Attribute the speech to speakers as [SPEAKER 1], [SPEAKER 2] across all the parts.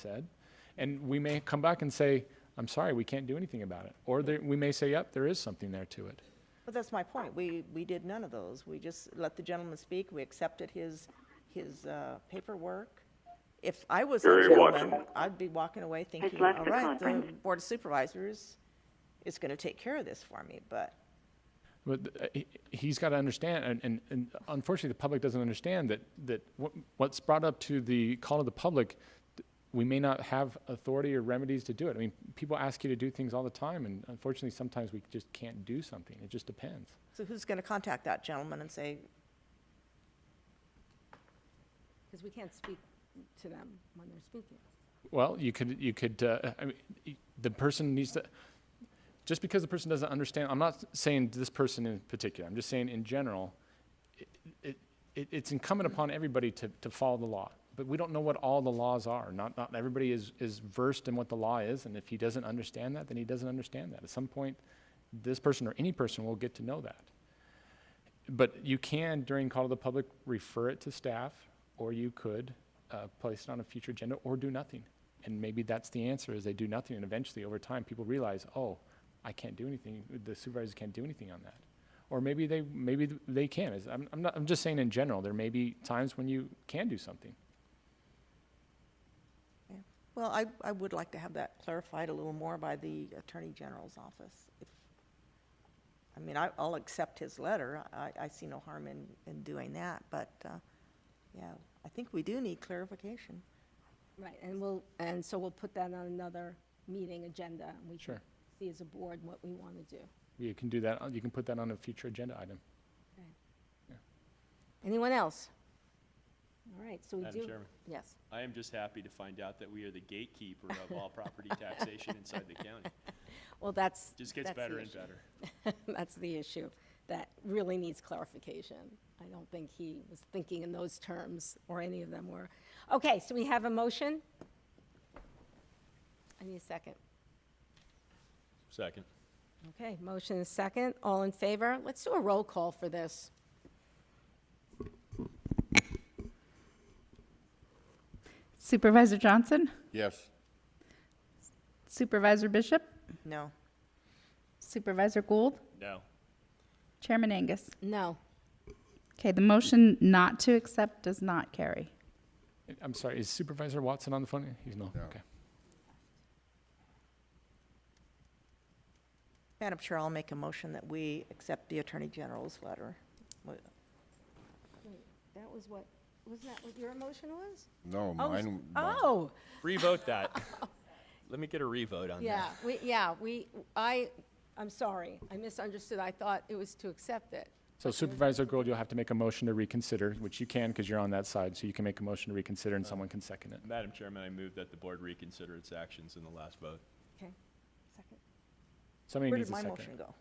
[SPEAKER 1] said. And we may come back and say, I'm sorry, we can't do anything about it. Or there- we may say, yep, there is something there to it.
[SPEAKER 2] But that's my point. We, we did none of those. We just let the gentleman speak. We accepted his, his uh, paperwork. If I was a
[SPEAKER 3] Very
[SPEAKER 2] gentleman,
[SPEAKER 3] welcome.
[SPEAKER 2] I'd be walking away thinking,
[SPEAKER 3] left
[SPEAKER 2] all
[SPEAKER 3] the
[SPEAKER 2] right, the
[SPEAKER 3] conference.
[SPEAKER 2] Board of Supervisors is going to take care of this for me, but
[SPEAKER 1] But uh, he- he's got to understand, and- and, and unfortunately, the public doesn't understand that, that what- what's brought up to the call of the public, th- we may not have authority or remedies to do it. I mean, people ask you to do things all the time, and unfortunately, sometimes we just can't do something. It just depends.
[SPEAKER 2] so who's going to contact that gentleman and say,
[SPEAKER 4] Because we can't speak to them when they're speaking.
[SPEAKER 1] Well, you could, you could, uh, I mean, y- the person needs to, just because the person doesn't understand, I'm not saying this person in particular, I'm just saying in general, i- it, it, it's incumbent upon everybody to, to follow the law. But we don't know what all the laws are. Not, not everybody is, is versed in what the law is, and if he doesn't understand that, then he doesn't understand that. At some point, this person or any person will get to know that. But you can, during call to the public, refer it to staff, or you could uh, place it on a future agenda, or do nothing. And maybe that's the answer, is they do nothing, and eventually, over time, people realize, oh, I can't do anything, the supervisors can't do anything on that. Or maybe they, maybe th- they can, Is- I'm, I'm not, I'm just saying in general, there may be times when you can do something.
[SPEAKER 2] well, I, I would like to have that clarified a little more by the Attorney General's office. If I mean, I, I'll accept his letter. I, I see no harm in, in doing that, but, uh, yeah, I think we do need clarification.
[SPEAKER 4] Right, and we'll, and so we'll put that on another meeting agenda, and we can
[SPEAKER 1] Sure.
[SPEAKER 4] see as a board what we want to do.
[SPEAKER 1] You can do that, uh, you can put that on a future agenda item.
[SPEAKER 4] Anyone else? All right, so we
[SPEAKER 5] Madam
[SPEAKER 4] do.
[SPEAKER 5] Chairman.
[SPEAKER 4] Yes.
[SPEAKER 5] I am just happy to find out that we are the gatekeeper of all property taxation inside the county.
[SPEAKER 4] Well, that's.
[SPEAKER 5] Just gets
[SPEAKER 4] that's the
[SPEAKER 5] better and
[SPEAKER 4] issue.
[SPEAKER 5] better.
[SPEAKER 4] That's the issue that really needs clarification. I don't think he was thinking in those terms, or any of them were. Okay, so we have a motion? I need a second.
[SPEAKER 5] Second.
[SPEAKER 4] Okay, motion is second. All in favor? Let's do a roll call for this.
[SPEAKER 6] Supervisor Johnson,
[SPEAKER 7] Yes.
[SPEAKER 6] Supervisor Bishop,
[SPEAKER 2] No.
[SPEAKER 6] Supervisor Gould,
[SPEAKER 5] No.
[SPEAKER 6] Chairman Angus.
[SPEAKER 4] No.
[SPEAKER 6] Okay, the motion not to accept does not carry.
[SPEAKER 1] Uh, I'm sorry, is Supervisor Watson on the phone? He's no,
[SPEAKER 7] No.
[SPEAKER 1] okay.
[SPEAKER 2] Madam Chair, I'll make a motion that we accept the Attorney General's letter. Wait,
[SPEAKER 4] That was what, was that what your emotion was?
[SPEAKER 7] No,
[SPEAKER 4] Oh, s-
[SPEAKER 7] mine. mine-
[SPEAKER 4] Oh,
[SPEAKER 5] Revote that. Let me get a revote on
[SPEAKER 4] yeah,
[SPEAKER 5] that.
[SPEAKER 4] we, yeah, we, I, I'm sorry, I misunderstood, I thought it was to accept it.
[SPEAKER 1] So Supervisor Gould, you'll have to make a motion to reconsider, which you can, because you're on that side, so you can make a motion to reconsider
[SPEAKER 2] Uh,
[SPEAKER 1] and someone can second it.
[SPEAKER 5] Madam Chairman, I move that the board reconsider its actions in the last vote.
[SPEAKER 4] Okay, second.
[SPEAKER 1] Somebody
[SPEAKER 2] Where
[SPEAKER 1] needs
[SPEAKER 2] did
[SPEAKER 1] a
[SPEAKER 2] my
[SPEAKER 1] second.
[SPEAKER 2] motion go?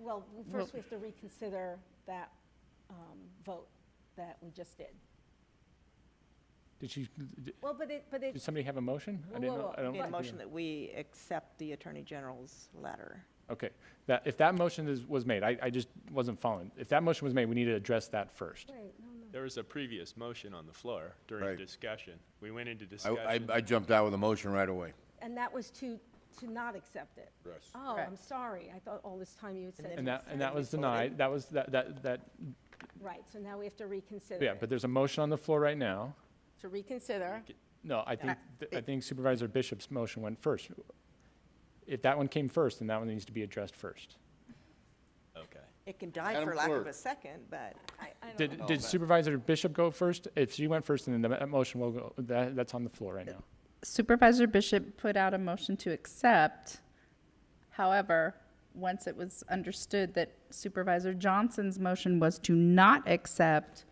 [SPEAKER 4] Well, first we have to reconsider that um, vote that we just did.
[SPEAKER 1] Did you, did-
[SPEAKER 4] Well, but it, but
[SPEAKER 1] did
[SPEAKER 4] it,
[SPEAKER 1] somebody have a motion? I
[SPEAKER 4] Whoa,
[SPEAKER 1] didn't
[SPEAKER 4] whoa,
[SPEAKER 1] know-
[SPEAKER 4] whoa.
[SPEAKER 1] I don't
[SPEAKER 2] Need a
[SPEAKER 1] think we-
[SPEAKER 2] motion that we accept the Attorney General's letter.
[SPEAKER 1] Okay, that, if that motion is, was made, I, I just wasn't following. If that motion was made, we need to address that first.
[SPEAKER 4] wait, no, no.
[SPEAKER 5] There was a previous motion on the floor during
[SPEAKER 7] Right.
[SPEAKER 5] discussion. We went into
[SPEAKER 7] I, I,
[SPEAKER 5] discussion.
[SPEAKER 7] I jumped out with a motion right away.
[SPEAKER 4] And that was to, to not accept it?
[SPEAKER 7] Yes.
[SPEAKER 4] Oh, I'm sorry, I thought all this time you had said.
[SPEAKER 1] And that, and that was
[SPEAKER 4] the
[SPEAKER 1] denied, that was, that, that, that,
[SPEAKER 4] Right, so now we have to reconsider.
[SPEAKER 1] yeah,
[SPEAKER 4] it.
[SPEAKER 1] but there's a motion on the floor right now.
[SPEAKER 4] To reconsider,
[SPEAKER 1] No, I think, th- I think Supervisor Bishop's motion went first. If that one came first, then that one needs to be addressed first.
[SPEAKER 5] Okay.
[SPEAKER 2] It can die
[SPEAKER 7] Madam
[SPEAKER 2] for lack of
[SPEAKER 7] Clerk.
[SPEAKER 2] a second, but
[SPEAKER 4] I, I don't
[SPEAKER 1] Did, did Supervisor Bishop go first? If she went first, then the m- motion will go, that, that's on the floor right now.
[SPEAKER 6] Supervisor Bishop put out a motion to accept. However, once it was understood that Supervisor Johnson's motion was to not accept,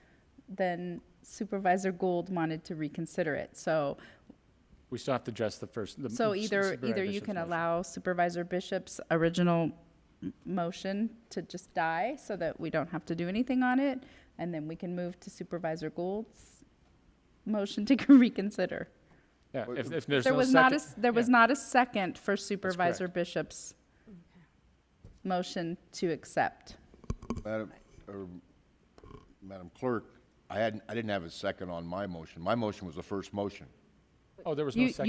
[SPEAKER 6] then Supervisor Gould wanted to reconsider it. So
[SPEAKER 1] We still have to address the first. the-
[SPEAKER 6] So
[SPEAKER 1] Su-
[SPEAKER 6] either,
[SPEAKER 1] Supervisor
[SPEAKER 6] either you
[SPEAKER 1] Bishop's
[SPEAKER 6] can
[SPEAKER 1] motion.
[SPEAKER 6] allow Supervisor Bishop's original m- motion to just die so that we don't have to do anything on it, and then we can move to Supervisor Gould's motion to reconsider.
[SPEAKER 1] Yeah, if, if there's
[SPEAKER 6] There
[SPEAKER 1] no
[SPEAKER 6] was not a,
[SPEAKER 1] second-
[SPEAKER 6] s- there was
[SPEAKER 1] yeah.
[SPEAKER 6] not a second for Supervisor Bishop's motion to accept.
[SPEAKER 7] Madam, or, Madam Clerk, I hadn't, I didn't have a second on my motion. My motion was the first motion.
[SPEAKER 1] Oh, there was no
[SPEAKER 6] You,
[SPEAKER 1] second.